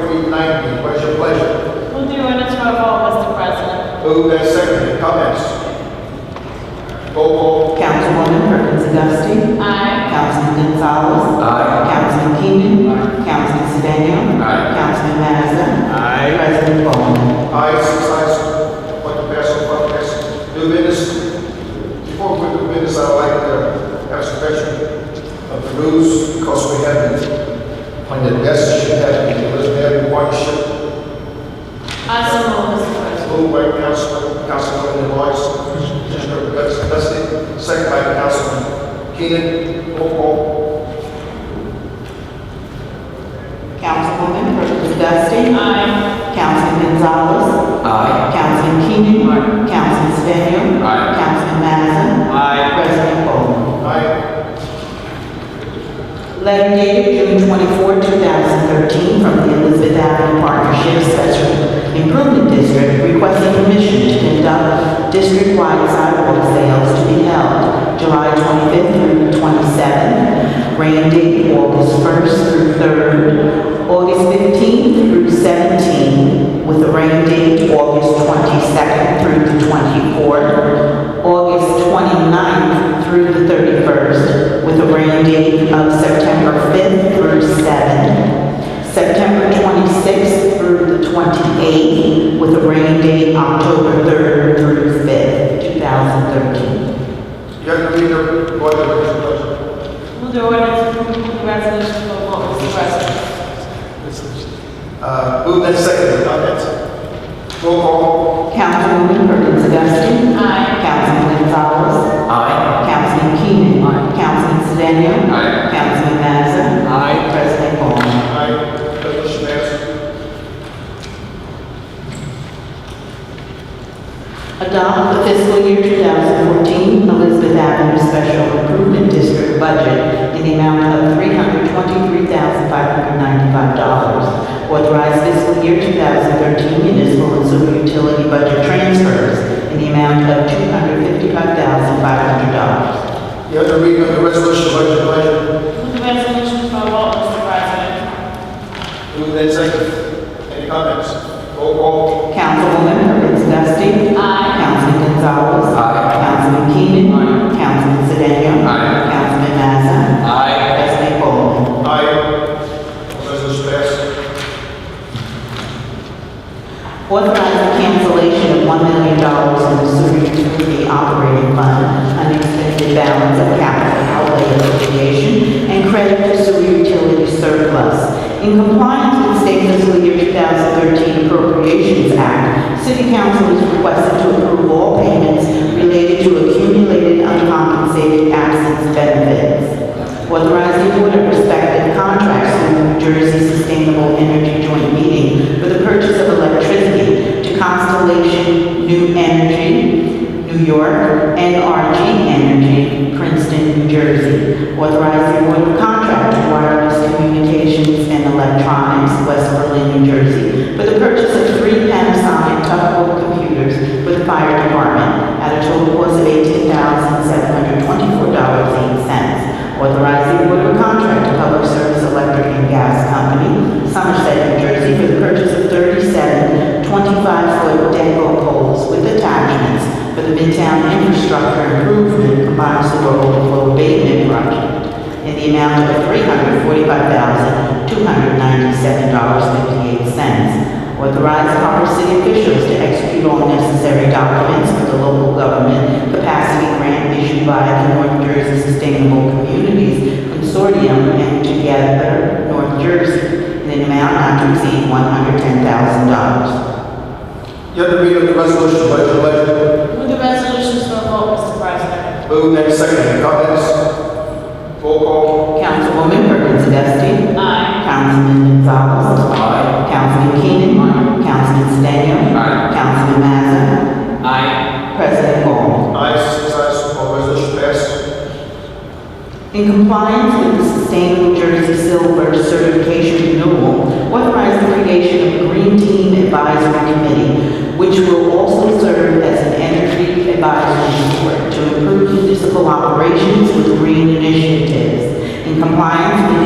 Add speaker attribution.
Speaker 1: 19. What's your pleasure?
Speaker 2: We'll do ordinance for a vote, Mr. President.
Speaker 1: Move and second. Comments? Roll call.
Speaker 3: Councilwoman Perkins Dusty.
Speaker 2: Aye.
Speaker 3: Councilman Gonzalez.
Speaker 4: Aye.
Speaker 3: Councilman Keenan. Councilman Sedan.
Speaker 4: Aye.
Speaker 3: Councilman Mazza.
Speaker 4: Aye.
Speaker 3: President Bowman.
Speaker 1: Ayes, six ayes, one passes, one passes. New business. Before we do business, I'd like to have some mention of the rules because we have the, on the desk, you have the Elizabeth Partnership
Speaker 2: I so move, Mr. President.
Speaker 1: Moved by Councilman, Councilwoman Lewis, Mr. President, second by Councilman Keenan, roll call.
Speaker 3: Councilwoman Perkins Dusty.
Speaker 2: Aye.
Speaker 3: Councilman Gonzalez.
Speaker 4: Aye.
Speaker 3: Councilman Keenan.
Speaker 4: Aye.
Speaker 3: Councilman Sedan.
Speaker 4: Aye.
Speaker 3: Councilman Mazza.
Speaker 4: Aye.
Speaker 3: President Bowman.
Speaker 1: Aye.
Speaker 3: Letter dated June 24, 2013, from the Elizabeth Avenue Partnership Special Improvement District requesting permission to conduct district-wide sidewalk sales to be held July 25th through 27th, rain date August 1st through 3rd, August 15th through 17th, with a rain date August 22nd through the 24th, August 29th through the 31st, with a rain date of September 5th through 7th, September 26th through the 28th, with a rain date October 3rd through 5th, 2013.
Speaker 1: You have to read the order, Mr. President.
Speaker 2: We'll do ordinance for the resolution for a vote, Mr. President.
Speaker 1: Uh, moved and seconded, comments? Roll call.
Speaker 3: Councilwoman Perkins Dusting.
Speaker 2: Aye.
Speaker 3: Councilman Gonzalez.
Speaker 4: Aye.
Speaker 3: Councilman Keenan. Councilman Sedan.
Speaker 4: Aye.
Speaker 3: Councilman Mazza.
Speaker 4: Aye.
Speaker 3: President Bowman.
Speaker 1: Aye. Resolution passed.
Speaker 3: Adopt the fiscal year 2014 Elizabeth Avenue Special Improvement District budget in the amount of $323,595. Authorize fiscal year 2013 municipal and sewer utility budget transfers in the amount of $255,500.
Speaker 1: You have to read the resolution, what is your pleasure?
Speaker 2: We'll do resolution for a vote, Mr. President.
Speaker 1: Moved and seconded, any comments? Roll call.
Speaker 3: Councilwoman Perkins Dusting.
Speaker 2: Aye.
Speaker 3: Councilman Gonzalez.
Speaker 4: Aye.
Speaker 3: Councilman Keenan.
Speaker 4: Aye.
Speaker 3: Councilman Sedan.
Speaker 4: Aye.
Speaker 3: Councilman Mazza.
Speaker 4: Aye.
Speaker 3: President Bowman.
Speaker 1: Aye. Resolution passed.
Speaker 3: Authorize the cancellation of one million dollars in the sewer utility operating fund, unexpended balance of capital outlay litigation, and credit for sewer utility surplus. In compliance with state fiscal year 2013 Appropriations Act, City Council is requested to approve all payments related to accumulated uncompensated absence benefits. Authorize the order respective contracts in the New Jersey Sustainable Energy Joint Meeting for the purchase of electricity to Constellation New Energy, New York, NRG Energy, Princeton, New Jersey. Authorize the order of contract to wireless communications and electronics, West Berlin, New Jersey, for the purchase of three Panasonic Tuckable computers for the fire department at a total cost of eighteen thousand seven hundred twenty-four dollars eight cents. Authorizing order of contract to Public Service Electric and Gas Company, Somerset, New Jersey, for the purchase of 37 25-foot deco poles with attachments for the Midtown Infrastructure Improvement Combined Sewer Overflow Abatement Project in the amount of $345,297.58. Authorize proper city officials to execute all necessary documents for the local government capacity grant issued by the North Jersey Sustainable Communities Consortium and Together North Jersey in an amount not to exceed $110,000.
Speaker 1: You have to read the resolution, what is your pleasure?
Speaker 2: We'll do resolutions for a vote, Mr. President.
Speaker 1: Moved and seconded, comments? Roll call.
Speaker 3: Councilwoman Perkins Dusting.
Speaker 2: Aye.
Speaker 3: Councilman Gonzalez.
Speaker 4: Aye.
Speaker 3: Councilman Keenan.
Speaker 4: Aye.
Speaker 3: Councilman Sedan.
Speaker 4: Aye.
Speaker 3: Councilman Mazza.
Speaker 4: Aye.
Speaker 3: President Ball.
Speaker 1: Ayes, six ayes, all resolution passed.
Speaker 3: In compliance with the Sustainable Jersey Silver Certification Renewal, authorize the creation of a Green Team Advisory Committee, which will also serve as an energy advisory board to improve municipal operations with green initiatives. In compliance with